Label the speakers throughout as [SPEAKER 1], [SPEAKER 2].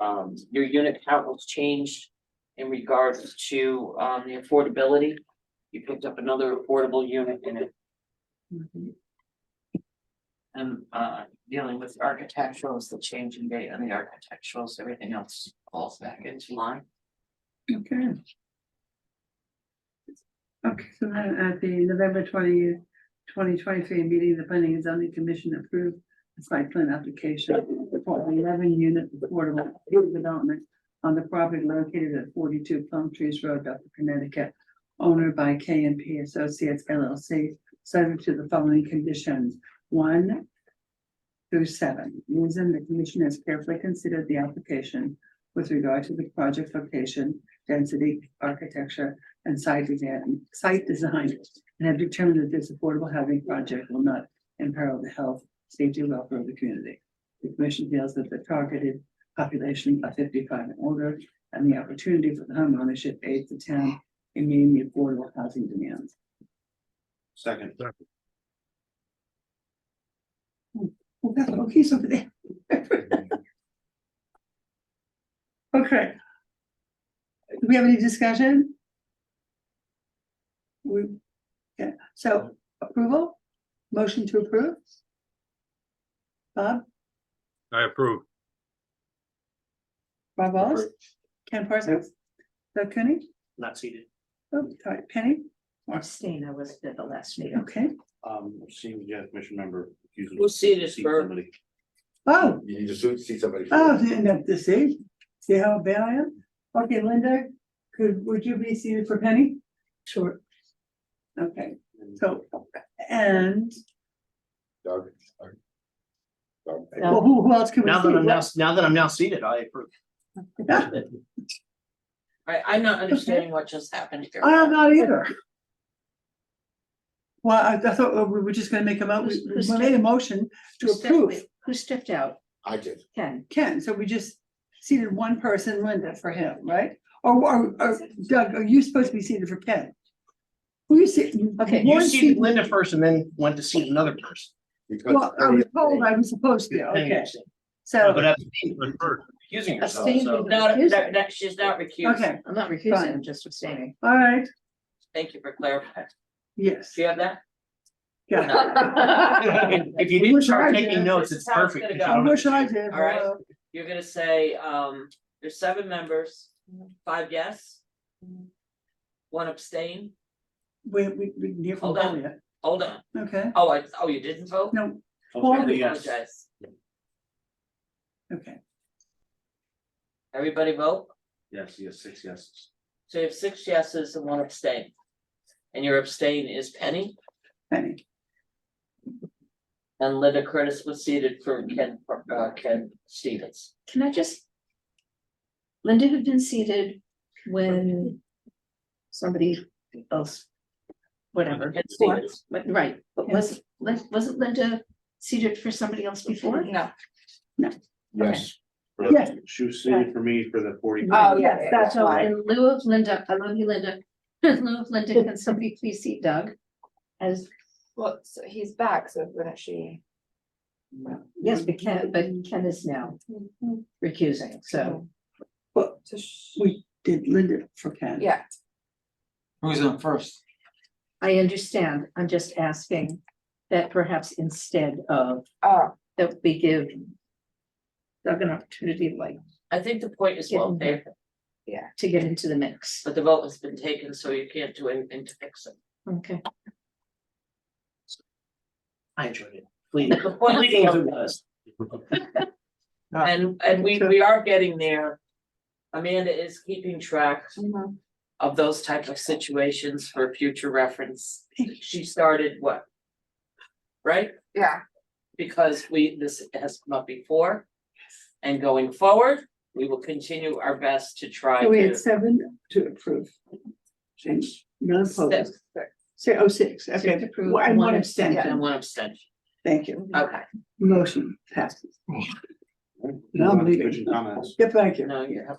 [SPEAKER 1] um, your unit count was changed in regards to, um, the affordability. You picked up another affordable unit in it. And, uh, dealing with architecturals, the change in date on the architecturals, everything else falls back into line.
[SPEAKER 2] Okay. Okay, so then at the November twentieth, twenty twenty-three meeting, the planning and zoning commission approved the site plan application for an eleven unit affordable development on the property located at forty-two Plum Trees Road, Dr. Connecticut, owner by K and P Associates LLC, subject to the following conditions, one through seven, reason the commission has carefully considered the application with regard to the project location, density, architecture, and site design, site design. And have determined that this affordable housing project will not imperil the health, safety, and welfare of the community. The commission feels that the targeted population of fifty-five and older and the opportunity for the home ownership aids the town in meeting the affordable housing demands.
[SPEAKER 3] Second.
[SPEAKER 2] Well, that's okay, so there. Okay. Do we have any discussion? We, yeah, so approval, motion to approve? Bob,
[SPEAKER 4] I approve.
[SPEAKER 2] Bob Wallace, Ken Parsons, Doug Cooney,
[SPEAKER 5] not seated.
[SPEAKER 2] oh, sorry, Penny,
[SPEAKER 6] Abstain, I was at the last meeting.
[SPEAKER 2] okay,
[SPEAKER 3] Um, seeing the commission member. accused of-
[SPEAKER 1] We'll see this
[SPEAKER 3] see
[SPEAKER 1] for-
[SPEAKER 3] somebody.
[SPEAKER 2] oh,
[SPEAKER 7] You need to see see somebody.
[SPEAKER 2] oh, yeah, to see, see how bad I am? Okay, Linda, could, would you be seated for Penny? Sure. Okay.
[SPEAKER 3] And
[SPEAKER 2] So, and,
[SPEAKER 7] Doug. Doug.
[SPEAKER 2] well, who, who else can we
[SPEAKER 5] Now that I'm now,
[SPEAKER 2] see?
[SPEAKER 5] now that I'm now seated, I approve.
[SPEAKER 1] I, I'm not understanding what just happened here.
[SPEAKER 2] I am not either. Well, I, I thought oh, we were just gonna make a mo, we
[SPEAKER 6] Who's-
[SPEAKER 2] we
[SPEAKER 6] who's
[SPEAKER 2] made a motion to
[SPEAKER 6] Who stepped-
[SPEAKER 2] approve
[SPEAKER 6] Who stepped out?
[SPEAKER 7] I did.
[SPEAKER 6] Ken?
[SPEAKER 2] Ken, so we just seated one person, Linda, for him, right? Or, or, or Doug, are you supposed to be seated for Ken? Who you see?
[SPEAKER 6] Okay.
[SPEAKER 5] You
[SPEAKER 2] one
[SPEAKER 5] seated
[SPEAKER 2] seat-
[SPEAKER 5] Linda first and then went to seat another person.
[SPEAKER 7] because-
[SPEAKER 2] Well, um, I was told I was supposed to,
[SPEAKER 5] Depending on
[SPEAKER 2] okay,
[SPEAKER 5] your seat. But
[SPEAKER 2] so,
[SPEAKER 5] that's being-
[SPEAKER 4] Preferred.
[SPEAKER 5] accusing yourself,
[SPEAKER 6] Abstain
[SPEAKER 5] so.
[SPEAKER 6] with the-
[SPEAKER 1] No, no, no, no, she's not recused.
[SPEAKER 2] okay,
[SPEAKER 6] I'm not recusing, I'm just abstaining.
[SPEAKER 2] all right,
[SPEAKER 1] Thank you for clarifying.
[SPEAKER 2] yes,
[SPEAKER 1] Do you have that?
[SPEAKER 2] yeah.
[SPEAKER 5] If you didn't start taking notes, it's perfect.
[SPEAKER 1] This is
[SPEAKER 5] because
[SPEAKER 1] how
[SPEAKER 2] I
[SPEAKER 1] it's
[SPEAKER 5] you
[SPEAKER 2] wish
[SPEAKER 5] don't-
[SPEAKER 2] I did,
[SPEAKER 1] All right.
[SPEAKER 2] well,
[SPEAKER 1] You're gonna say, um, there's seven members, five yes. One abstain,
[SPEAKER 2] we, we, we can hear from
[SPEAKER 1] Hold on.
[SPEAKER 2] Delia,
[SPEAKER 1] hold on,
[SPEAKER 2] okay,
[SPEAKER 1] oh, I, oh, you didn't vote?
[SPEAKER 2] no,
[SPEAKER 3] I'll
[SPEAKER 1] I
[SPEAKER 3] say yes.
[SPEAKER 1] apologize.
[SPEAKER 2] Okay,
[SPEAKER 1] Everybody vote,
[SPEAKER 3] Yes, yes, six yeses.
[SPEAKER 1] so you have six yeses and one abstain. And your abstain is Penny,
[SPEAKER 2] Penny,
[SPEAKER 1] and Linda Curtis was seated for Ken, uh, Ken Stevens.
[SPEAKER 6] Can I just? Linda had been seated when somebody else, whatever.
[SPEAKER 1] Ken Stevens.
[SPEAKER 6] But, right, but was, Lin- wasn't Linda seated for somebody else before?
[SPEAKER 1] No.
[SPEAKER 7] Yes,
[SPEAKER 3] For-
[SPEAKER 2] Yes.
[SPEAKER 3] She was seated for me for the forty.
[SPEAKER 2] Oh, yes, that's
[SPEAKER 6] So
[SPEAKER 2] why.
[SPEAKER 6] in lieu of Linda, I love you, Linda. In lieu of Linda, can somebody please seat Doug? As,
[SPEAKER 8] Well, so he's back, so wouldn't she?
[SPEAKER 6] yes, but Ken, but Ken is now
[SPEAKER 2] Mm-hmm.
[SPEAKER 6] recusing, so.
[SPEAKER 2] well,
[SPEAKER 8] So she,
[SPEAKER 2] we did Linda for Ken.
[SPEAKER 8] yeah,
[SPEAKER 5] Who's on first?
[SPEAKER 6] I understand, I'm just asking that perhaps instead of,
[SPEAKER 8] oh,
[SPEAKER 6] that we give. Doug an opportunity like
[SPEAKER 1] I think the point is well
[SPEAKER 6] Yeah.
[SPEAKER 1] taken,
[SPEAKER 6] to get into the mix,
[SPEAKER 1] but the vote has been taken, so you can't do anything to fix it.
[SPEAKER 6] okay?
[SPEAKER 5] I enjoyed it. Leading,
[SPEAKER 1] The point is
[SPEAKER 5] leading as
[SPEAKER 1] well
[SPEAKER 5] it was.
[SPEAKER 1] And, and we, we are getting there. Amanda is keeping track of those type of situations for future reference. She started what? Right?
[SPEAKER 8] yeah,
[SPEAKER 1] Because we, this has come up before. And going forward, we will continue our best to try
[SPEAKER 2] So we had
[SPEAKER 1] to.
[SPEAKER 2] seven to approve. Change, none opposed,
[SPEAKER 1] Six.
[SPEAKER 2] say oh six, okay,
[SPEAKER 6] to approve,
[SPEAKER 2] Well, and
[SPEAKER 6] one
[SPEAKER 2] one
[SPEAKER 1] And
[SPEAKER 2] abstention,
[SPEAKER 1] one abstention.
[SPEAKER 2] thank you,
[SPEAKER 1] Okay,
[SPEAKER 2] motion passes, No, I'm leaving.
[SPEAKER 3] Commission Comments.
[SPEAKER 2] yeah, thank you,
[SPEAKER 1] no, you have.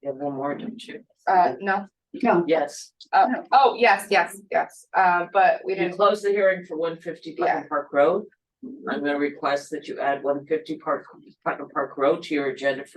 [SPEAKER 1] You have one more, don't you?
[SPEAKER 8] uh, no,
[SPEAKER 2] no,
[SPEAKER 1] Yes,
[SPEAKER 8] uh,
[SPEAKER 2] No.
[SPEAKER 8] oh, yes, yes, yes, uh, but we
[SPEAKER 1] you
[SPEAKER 8] didn't,
[SPEAKER 1] close the hearing for one fifty Putnam
[SPEAKER 8] Yeah.
[SPEAKER 1] Park Road. I'm gonna request that you add one fifty Park, Putnam Park Road to your agenda for